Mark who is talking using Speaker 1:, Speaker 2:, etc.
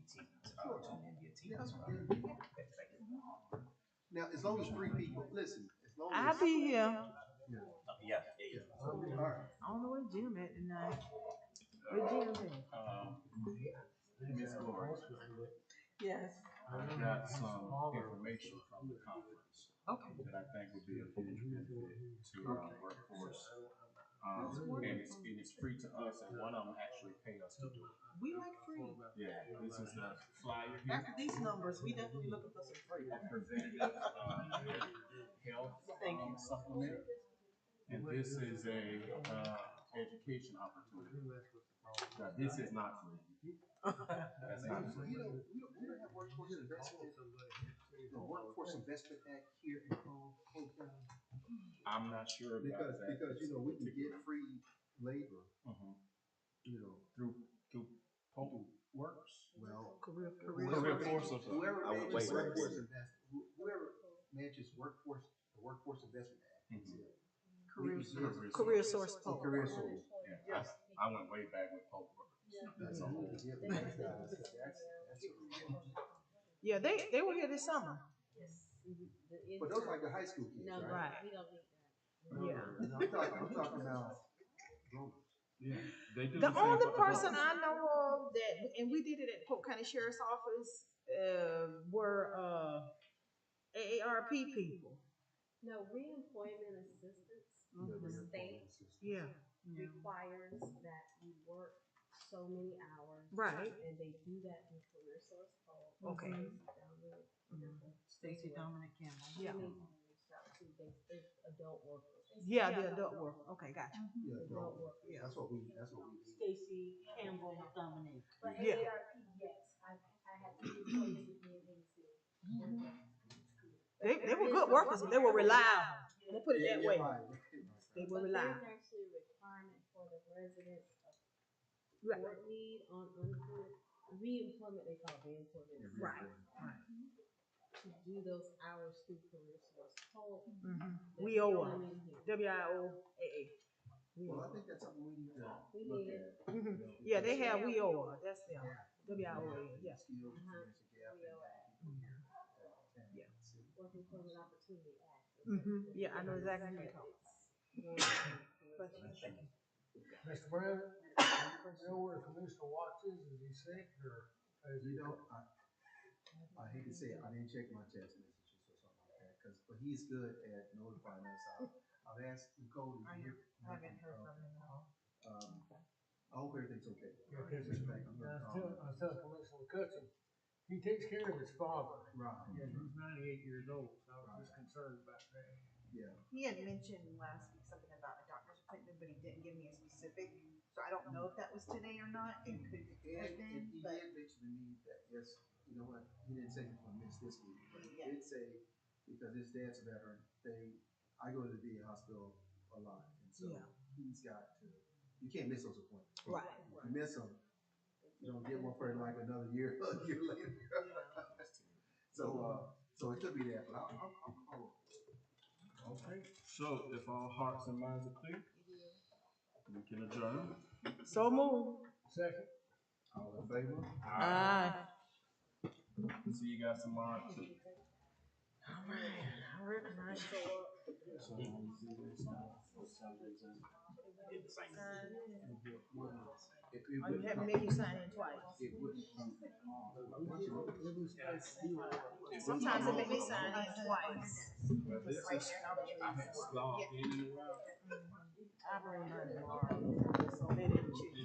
Speaker 1: that's fine. Now, as long as three people, listen, as long as.
Speaker 2: I'll be here.
Speaker 3: Yeah, yeah, yeah.
Speaker 1: All right.
Speaker 2: I don't know where Jim at tonight. Where Jim at?
Speaker 3: Um, Ms. Lawrence,
Speaker 2: Yes.
Speaker 3: I got some information from the conference
Speaker 2: Okay.
Speaker 3: that I think would be a huge benefit to our workforce. Um, and it's, and it's free to us, and one of them actually pay us to do it.
Speaker 2: We like free.
Speaker 3: Yeah, this is the flyer here.
Speaker 2: After these numbers, we definitely looking for some free.
Speaker 3: I presented, um, health
Speaker 2: Thank you.
Speaker 3: um, supplement. And this is a, uh, education opportunity. Now, this is not free. That's not
Speaker 1: So you
Speaker 3: free.
Speaker 1: know, we don't, we don't have workforce investment, the workforce investment act here in Cole, Cole County.
Speaker 3: I'm not sure about
Speaker 1: Because,
Speaker 3: that.
Speaker 1: because, you know, we can get free labor,
Speaker 3: Mhm.
Speaker 1: you know,
Speaker 3: Through, through public works?
Speaker 1: well.
Speaker 2: Career,
Speaker 3: Career
Speaker 2: career.
Speaker 3: force of-
Speaker 1: Whoever
Speaker 3: I would- wait,
Speaker 1: manages
Speaker 3: wait, wait.
Speaker 1: workforce invest, wh- whoever manages workforce, the workforce investment act.
Speaker 3: Mhm.
Speaker 2: Career,
Speaker 1: source.
Speaker 2: career source
Speaker 1: Oh,
Speaker 2: poll.
Speaker 1: career source.
Speaker 3: Yeah, I, I went way back with public works.
Speaker 1: That's
Speaker 3: Mhm.
Speaker 1: all. Yeah, but that's- that's- that's what we-
Speaker 2: Yeah, they, they were here this summer.
Speaker 1: But those are like the high school kids,
Speaker 4: No,
Speaker 1: right? Uh-huh.
Speaker 2: Right.
Speaker 4: we don't need that.
Speaker 2: Yeah.
Speaker 1: No, I'm talking, I'm talking about grown-ups.
Speaker 3: Yeah, they do.
Speaker 2: The
Speaker 3: same
Speaker 2: only
Speaker 3: for adults.
Speaker 2: person I know of that, and we did it at Polk County Sheriff's Office, uh, were, uh, AARP people.
Speaker 4: No, reemployment assistance, the
Speaker 1: Mhm.
Speaker 4: state
Speaker 2: Yeah.
Speaker 4: requires that you work so many hours.
Speaker 2: Right.
Speaker 4: And they do that through career source poll.
Speaker 2: Okay.
Speaker 4: Stacy
Speaker 2: Dominic Campbell. Mm-hmm. Yeah.
Speaker 4: Adult workers.
Speaker 2: Yeah, the adult work. Okay, gotcha.
Speaker 5: Mm-hmm.
Speaker 1: Yeah,
Speaker 4: Adult
Speaker 1: no,
Speaker 4: workers.
Speaker 1: that's what we, that's what we need.
Speaker 6: Stacy Campbell Dominic.
Speaker 4: But
Speaker 2: Yeah.
Speaker 4: AARP, yes, I, I had two employees with me in Tennessee.
Speaker 2: Mm-hmm. They, they were good workers. and They were reliable. Let's put it that
Speaker 1: Yeah, yeah,
Speaker 2: way.
Speaker 1: right, right, right.
Speaker 2: They were
Speaker 4: But
Speaker 2: reliable.
Speaker 4: there's actually a requirement for the residents of
Speaker 2: Right.
Speaker 4: Fort Meade on unemployment, reemployment, they call it reemployment.
Speaker 2: Right.
Speaker 4: To do those hours through career source poll. That's
Speaker 2: Mm-hmm. We owe
Speaker 4: the
Speaker 2: them.
Speaker 4: only one here.
Speaker 2: W-I-O-A-A. We
Speaker 1: Well,
Speaker 2: owe
Speaker 1: I think that's something we need to
Speaker 4: We
Speaker 1: look
Speaker 4: need
Speaker 1: at.
Speaker 2: them.
Speaker 1: you
Speaker 2: Mhm.
Speaker 1: know,
Speaker 2: Yeah, they
Speaker 1: because-
Speaker 2: have we owe them. That's them.
Speaker 1: Yeah,
Speaker 2: W-I-O-A,
Speaker 1: and
Speaker 2: yeah. Uh-huh.
Speaker 1: still there's a gap in that people here, uh, and
Speaker 2: Yeah.
Speaker 1: it's-
Speaker 4: Work Employment Opportunity Act.
Speaker 2: Mhm. Yeah, I know exactly what you're talking
Speaker 4: about.
Speaker 7: Mr. President, do you think you know where Commissioner Watts is? Is he sick or? is he-
Speaker 1: You know, I, I hate to say it, I didn't check my text messages or something like that, cause, but he's good at notifying us. I've- I've asked Nicole to
Speaker 2: I
Speaker 1: hear.
Speaker 2: haven't heard from him at all.
Speaker 1: Um, I hope everything's okay.
Speaker 7: Yeah, he's-
Speaker 1: Just like, I'm gonna
Speaker 7: I was
Speaker 1: call
Speaker 7: telling, I was telling Commissioner McCutcheon, he takes care of his father.
Speaker 1: Rob,
Speaker 7: Yeah, he's ninety-eight years old, so I was just concerned about that.
Speaker 1: yeah.
Speaker 5: He had mentioned last week something about a doctor's appointment, but he didn't give me a specific, so I don't know if that was today or not, it could
Speaker 1: And,
Speaker 5: have
Speaker 1: and
Speaker 5: been,
Speaker 1: he
Speaker 5: but.
Speaker 1: did mention to me that, yes, you know what, he didn't say he's gonna miss this week, but he did say, because his dad's a veteran, they, I go to the VA hospital a lot, and so
Speaker 2: Yeah.
Speaker 1: he's got to, you can't miss those appointments.
Speaker 2: Right.
Speaker 1: If you miss them, you don't get one for like another year, a year later. So, uh, so it could be that, but I'll, I'll, I'll call
Speaker 3: Okay, so if all hearts and minds are clear, we can adjourn.
Speaker 2: So move.
Speaker 7: Second,
Speaker 1: him. All in favor?
Speaker 5: Uh,
Speaker 2: Aye.
Speaker 3: See you guys tomorrow. at two.
Speaker 2: All right, I recognize
Speaker 1: It- it
Speaker 2: you. You
Speaker 1: wouldn't
Speaker 2: have to
Speaker 1: come-
Speaker 2: make you sign in twice.
Speaker 1: It wouldn't come.
Speaker 2: Sometimes it make me sign in twice.
Speaker 3: But this is- I have to slog in and out.
Speaker 2: I bring her tomorrow.